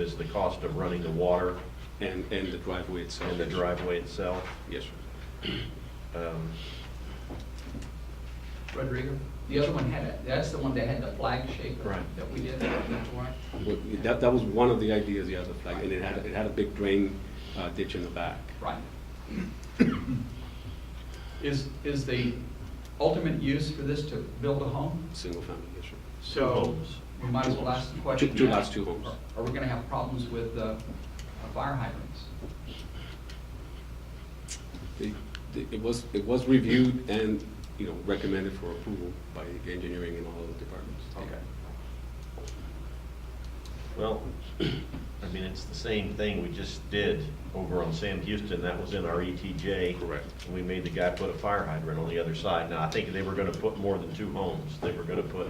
is the cost of running the water And, and the driveway itself. and the driveway itself. Yes, sir. Um, Rodrigo, the other one had, a- that's the one that had the flag shape Right. that we did, that's why. But That, that was one of the ideas, yeah, the flag, and it had, it had a big drain uh, ditch in the back. Right. Is, is the ultimate use for this to build a home? Single family, yes, sir. So, we might as well ask the question. Two- two lots, two homes. Are we gonna have problems with, uh, fire hydrants? They- they- It was, it was reviewed and, you know, recommended for approval by engineering and all of the departments. Well, I mean, it's the same thing we just did over on Sam Houston. That was in our ETJ. Correct. And we made the guy put a fire hydrant on the other side. Now, I think they were gonna put more than two homes. They were gonna put,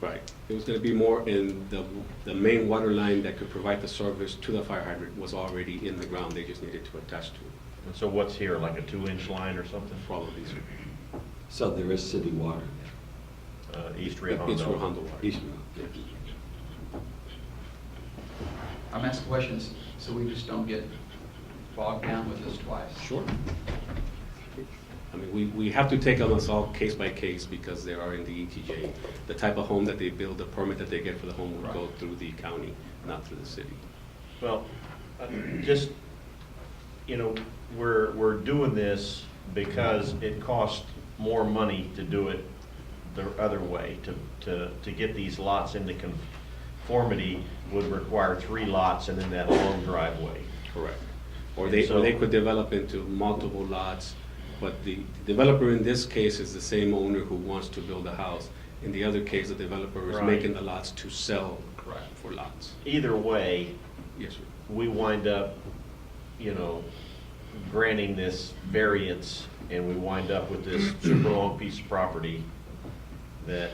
Right. It was gonna be more in the, the main water line that could provide the service to the fire hydrant was already in the ground, they just needed to attach to it, and so what's here, like a two-inch line or something? probably. sir. So there is city water Uh, East Rio It's for Hondo water. East- Yeah. I'm asking questions, so we just don't get bogged down with this twice. Sure. I mean, we, we have to take on this all case by case because they are in the ETJ. The type of home that they build, the permit that they get for the home would go through the county, not through the city. Well, uh, just, you know, we're, we're doing this because it costs more money to do it the other way. To, to, to get these lots into conformity would require three lots and then that long driveway. Correct. Or they, or they could develop into multiple lots, but the developer in this case is the same owner who wants to build a house. In the other case, the developer is Right. making the lots to sell Correct. for lots. Either way, Yes, sir. we wind up, you know, granting this variance, and we wind up with this super long piece of property that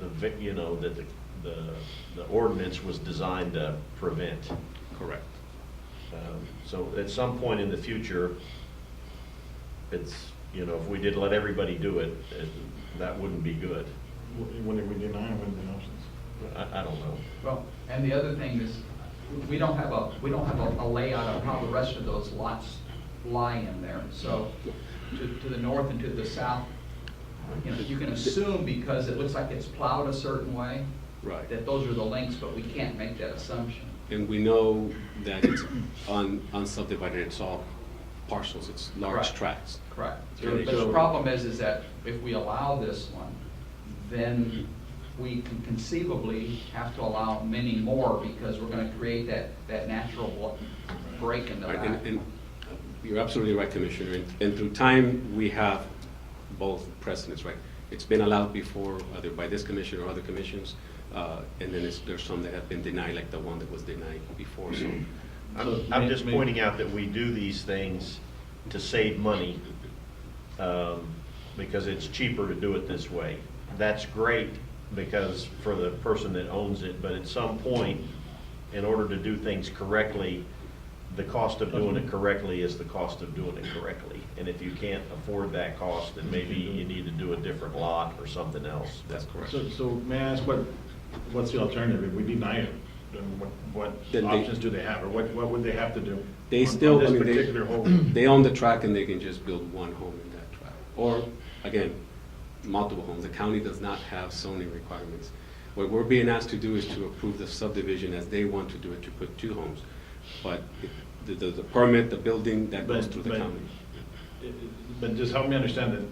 the, vi- you know, that the, the the ordinance was designed to prevent. Correct. Um, So at some point in the future, it's, you know, if we did let everybody do it, it- that wouldn't be good. What did we deny, what are the options? I, I don't know. Well, and the other thing is, we don't have a, we don't have a a layout of how the rest of those lots lie in there. So to, to the north and to the south, you know, you can assume because it looks like it's plowed a certain way, Right. that those are the links, but we can't make that assumption. And we know that it's un- unsubdivided, it's all parcels, it's large Correct. tracts. Correct. Sure. But the problem is, is that if we allow this one, then we can conceivably have to allow many more because we're gonna create that, that natural wa- break in the Right, back. and, and you're absolutely right, Commissioner, and, and through time, we have both precedents, right? It's been allowed before, either by this commission or other commissions, uh, and then it's, there's some that have been denied, like the one that was denied before, so. I'm, I'm just pointing out that we do these things to save money, um, because it's cheaper to do it this way. That's great because for the person that owns it, but at some point, in order to do things correctly, the cost of doing Mhm. it correctly is the cost of doing it correctly. And if you can't afford that cost, then maybe you need to do a different lot or something else. That's correct. So, so may I ask what, what's the alternative? If we deny it, then what, Then what they- options do they have? Or what, what would they have to do? They on- still- on I this mean, they- particular home? They own the track and they can just build one home in that track. Or, again, multiple homes. The county does not have zoning requirements. What we're being asked to do is to approve the subdivision as they want to do it, to put two homes. But the, the the permit, the building, that goes But- through the but- county. But just help me understand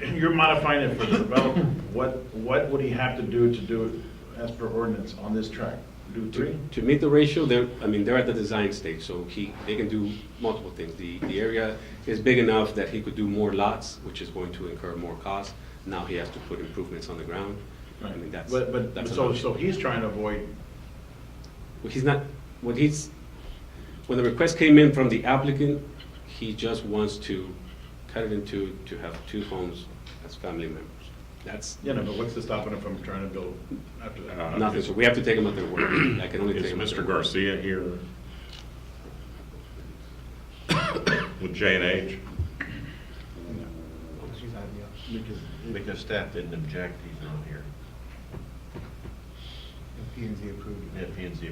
that, you're modifying it for the developer. What, what would he have to do to do it as per ordinance on this track? Do three? To- To meet the ratio, they're, I mean, they're at the design stage, so he, they can do multiple things. The, the area is big enough that he could do more lots, which is going to incur more costs. Now he has to put improvements on the ground. I mean, that's. But, but, that's an so, option. so he's trying to avoid Well, He's not, when he's, when the request came in from the applicant, he just wants to cut it into, to have two homes as family members. That's You know, but what's to stop him from trying to build after that? nothing, so we have to take him at their word. I can only take Uh, Is him at their Mr. word. Garcia here with J and H? Because it- Because staff didn't object, he's not here. P and Z approved it. P and Z